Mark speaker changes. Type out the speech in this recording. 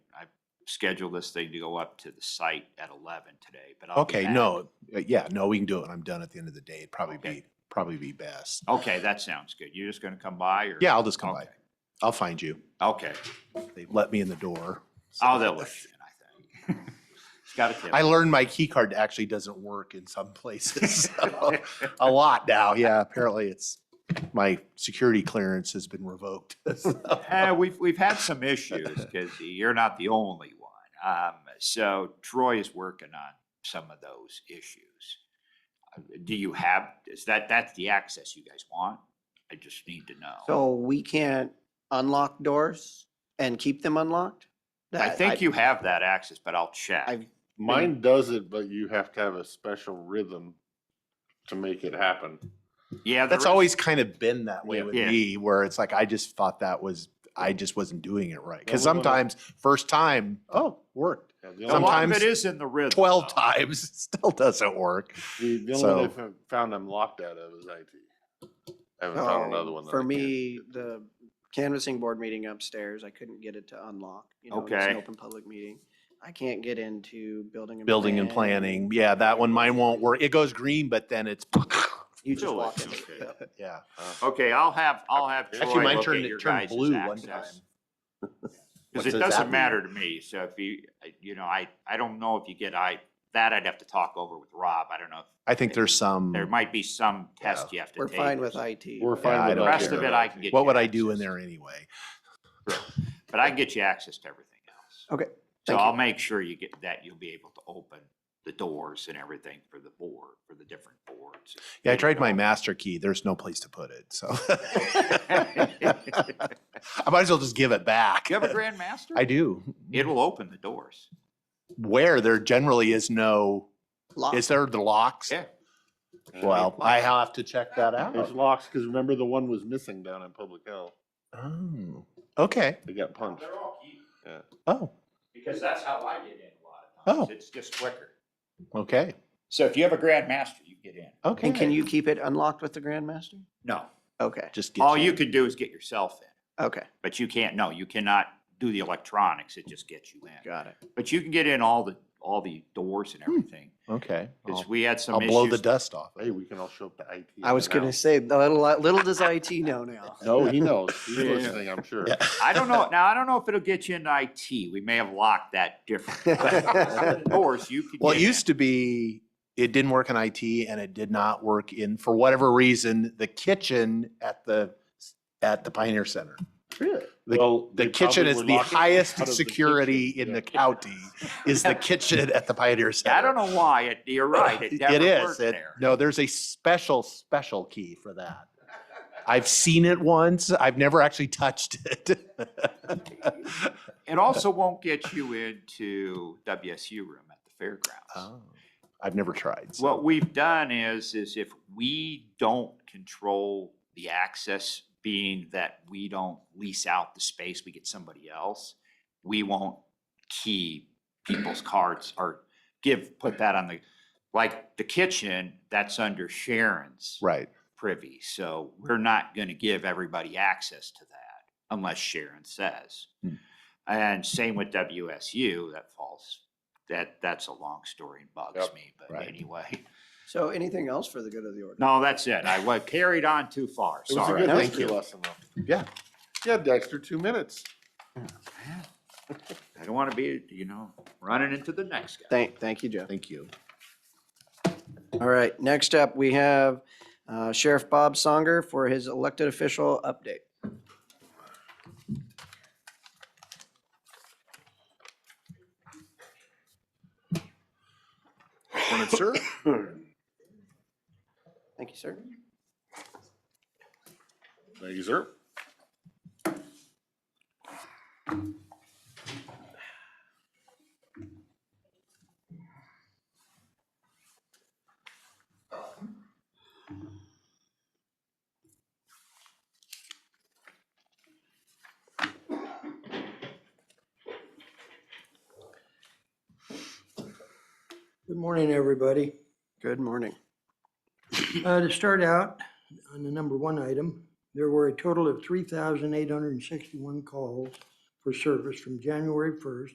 Speaker 1: schedule this thing to go up to the site at eleven today, but I'll be
Speaker 2: Okay,
Speaker 1: back.
Speaker 2: no, uh, yeah, no, we can do it. when I'm done at the end of the day. It'd probably
Speaker 1: Okay.
Speaker 2: be, probably be best.
Speaker 1: Okay, that sounds good. You're just gonna come by or?
Speaker 2: Yeah, I'll just come by.
Speaker 1: Okay.
Speaker 2: I'll find you.
Speaker 1: Okay.
Speaker 2: They let me in the door. so-
Speaker 1: Oh, they'll let you in, I think. It's got a tip.
Speaker 2: I learned my key card actually doesn't work in some places. so, A lot now, yeah, apparently it's, my security clearance has been revoked. so.
Speaker 1: Uh, we've, we've had some issues because you're not the only one. Um, so Troy is working on some of those issues. Uh, Do you have, is that, that's the access you guys want? I just need to know.
Speaker 3: So we can't unlock doors and keep them unlocked?
Speaker 1: I
Speaker 3: That-
Speaker 1: think you have that access, but I'll check.
Speaker 3: I-
Speaker 4: Mine does it, but you have to have a special rhythm to make it happen.
Speaker 1: Yeah.
Speaker 2: That's
Speaker 1: there is-
Speaker 2: always kind of been that way
Speaker 4: Yeah.
Speaker 2: with
Speaker 1: Yeah.
Speaker 2: me, where it's like, I just thought that was, I just wasn't doing it right. Because
Speaker 4: we wanna-
Speaker 2: sometimes, first time, oh, worked.
Speaker 4: Yeah, the
Speaker 1: A lot of
Speaker 2: sometimes
Speaker 1: it is in the rhythm.
Speaker 2: 12
Speaker 1: though.
Speaker 2: times, it still doesn't work.
Speaker 4: only, the, the only
Speaker 2: so-
Speaker 4: one I fo- found I'm locked out of is IT. I haven't
Speaker 2: Oh,
Speaker 4: found another
Speaker 3: so
Speaker 4: one. that
Speaker 3: oh,
Speaker 4: I
Speaker 3: For
Speaker 4: can't-
Speaker 3: me, the canvassing board meeting upstairs, I couldn't get it to unlock. You know, and it's an
Speaker 1: Okay.
Speaker 3: Open public meeting. I can't get into building and.
Speaker 2: Building and planning, yeah, that one, mine won't work. It goes green, but then it's,
Speaker 3: You just
Speaker 1: Really?
Speaker 3: walk in.
Speaker 1: Okay.
Speaker 3: Yep.
Speaker 2: yeah.
Speaker 4: Uh,
Speaker 1: Okay, I'll have, I'll have Troy
Speaker 2: Actually, mine
Speaker 1: look at
Speaker 2: turned, it
Speaker 1: your
Speaker 2: turned
Speaker 1: guys'
Speaker 2: blue one time.
Speaker 1: access. Because it
Speaker 2: What does that
Speaker 1: doesn't
Speaker 2: mean?
Speaker 1: matter to me, so if you, I- you know, I, I don't know if you get, I, that I'd have to talk over with Rob, I don't know. if-
Speaker 2: I think there's some.
Speaker 1: There might be some test you have to
Speaker 3: We're
Speaker 1: take.
Speaker 3: fine
Speaker 1: or
Speaker 3: with
Speaker 1: something,
Speaker 3: IT.
Speaker 4: We're
Speaker 2: I
Speaker 4: fine with
Speaker 2: don't
Speaker 1: The
Speaker 4: not
Speaker 1: rest
Speaker 4: getting
Speaker 1: of it
Speaker 4: rid
Speaker 1: I can get.
Speaker 2: What
Speaker 1: you
Speaker 2: would I do in
Speaker 1: access,
Speaker 2: there anyway?
Speaker 1: But I can get you access to everything else.
Speaker 3: Okay,
Speaker 1: So
Speaker 3: thank you.
Speaker 1: I'll make sure you get, that you'll be able to open the doors and everything for the board, for the different boards.
Speaker 2: Yeah, I tried my master key. There's no place to put it, so. I might as well just give it back.
Speaker 1: Do you have a grandmaster?
Speaker 2: I do.
Speaker 1: It'll open the doors.
Speaker 2: Where there generally is no,
Speaker 3: Lock.
Speaker 2: is there the locks?
Speaker 1: Yeah.
Speaker 4: of it.
Speaker 2: Well, I have to check that
Speaker 4: There's
Speaker 2: out.
Speaker 4: locks, because remember the one was missing down in public health.
Speaker 2: Oh, okay.
Speaker 4: They got punched.
Speaker 1: all key,
Speaker 2: Oh,
Speaker 1: because that's how I get in a lot
Speaker 2: times. Oh.
Speaker 1: It's just quicker.
Speaker 2: okay.
Speaker 1: So if you have a grandmaster, you get in.
Speaker 2: Okay.
Speaker 3: And can you keep it unlocked with the grandmaster?
Speaker 1: No.
Speaker 3: Okay,
Speaker 2: Just
Speaker 1: All
Speaker 2: get you.
Speaker 1: you can do is get yourself in,
Speaker 3: okay,
Speaker 1: but you can't, no, you cannot do the electronics. It just gets you in.
Speaker 3: got it.
Speaker 1: But you can get in all the, all the doors and everything.
Speaker 2: Okay.
Speaker 1: Cause
Speaker 2: I'll-
Speaker 1: we had some
Speaker 2: Hmm. Oh. I'll blow the
Speaker 1: issues.
Speaker 2: dust off.
Speaker 4: Hey, we can all show up to IT.
Speaker 3: I was
Speaker 4: and
Speaker 3: gonna
Speaker 4: out.
Speaker 3: say, little, little does IT know now.
Speaker 4: No, he knows. He's
Speaker 1: Yeah.
Speaker 4: listening, I'm sure.
Speaker 2: Yeah.
Speaker 1: I don't know, now I don't know if it'll get you into IT. We may have locked that different. Some Doors you could.
Speaker 2: Well, it
Speaker 1: get in.
Speaker 2: used to be, it didn't work in IT and it did not work in, for whatever reason, the kitchen at the, at the Pioneer Center.
Speaker 4: Really?
Speaker 2: The-
Speaker 4: Well,
Speaker 2: The
Speaker 4: they
Speaker 2: kitchen
Speaker 4: probably
Speaker 2: is
Speaker 4: were
Speaker 2: the
Speaker 4: locking out
Speaker 2: highest
Speaker 4: of the
Speaker 2: security in
Speaker 4: kitchen. Yeah.
Speaker 2: the county, is the kitchen at the Pioneer Center.
Speaker 1: I don't know why, it- you're right, it
Speaker 2: It
Speaker 1: never
Speaker 2: is.
Speaker 1: worked
Speaker 2: It-
Speaker 1: there.
Speaker 2: No, there's a special, special key for that. I've seen it once. I've never actually touched it.
Speaker 1: It also won't get you into WSU room at the fairgrounds.
Speaker 2: Oh, I've never tried. so-
Speaker 1: What we've done is, is if we don't control the access, being that we don't lease out the space, we get somebody else, we won't key people's cards or give, put that on the, like the kitchen, that's under Sharon's
Speaker 2: Right.
Speaker 1: privy. So we're not going to give everybody access to that unless Sharon says.
Speaker 2: Hmm.
Speaker 1: And same with WSU, that falls, that, that's a long story and bugs
Speaker 4: Yep.
Speaker 1: me, but
Speaker 2: Right.
Speaker 1: anyway.
Speaker 3: So anything else for the good of the order?
Speaker 1: No, that's it. I wa- carried on too far.
Speaker 4: It was a
Speaker 1: Sorry.
Speaker 4: good
Speaker 3: No,
Speaker 4: history lesson, though.
Speaker 2: Yeah.
Speaker 4: Yeah, Dexter, two minutes.
Speaker 1: I don't want to be, you know, running into the next guy.
Speaker 3: Thank, thank you, Jeff.
Speaker 2: Thank you.
Speaker 3: All right, next up, we have uh, Sheriff Bob Songer for his elected official update.
Speaker 2: Sir?
Speaker 3: Thank you, sir.
Speaker 4: Thank you, sir.
Speaker 5: Good morning, everybody.
Speaker 3: Good morning.
Speaker 5: Uh, To start out, on the number one item, there were a total of 3,861 calls for service from January 1st